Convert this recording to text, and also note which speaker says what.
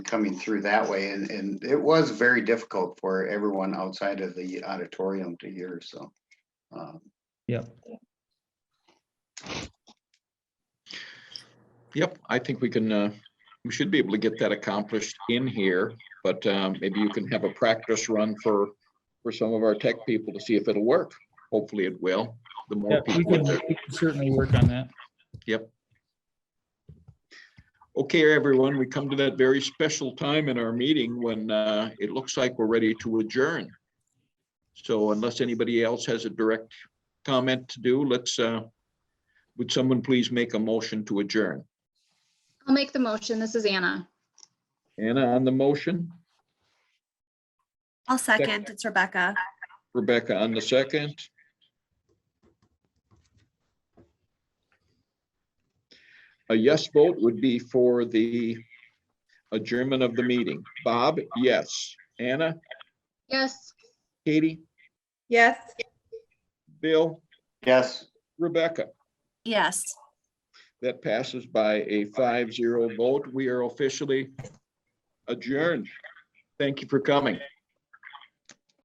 Speaker 1: coming through that way and, and it was very difficult for everyone outside of the auditorium to hear, so. um,
Speaker 2: Yeah,
Speaker 3: Yep, I think we can, uh, we should be able to get that accomplished in here, but um, maybe you can have a practice run for, for some of our tech people to see if it'll work. Hopefully it will. The
Speaker 2: yeah,
Speaker 3: more
Speaker 2: we
Speaker 3: people.
Speaker 2: can
Speaker 3: that-
Speaker 2: we can certainly work on that.
Speaker 3: Okay, everyone, we come to that very special time in our meeting when uh, it looks like we're ready to adjourn. So unless anybody else has a direct comment to do, let's, uh, would someone please make a motion to adjourn?
Speaker 4: I'll make the motion. This is Anna.
Speaker 3: Anna on the motion?
Speaker 5: I'll second. It's Rebecca.
Speaker 3: Rebecca on the second. A yes vote would be for the adjournment of the meeting. Bob, yes. Anna,
Speaker 4: Yes.
Speaker 3: Katie,
Speaker 6: Yes.
Speaker 3: Bill,
Speaker 1: Yes,
Speaker 3: Rebecca.
Speaker 5: Yes.
Speaker 3: That passes by a five zero vote. We are officially adjourned. Thank you for coming.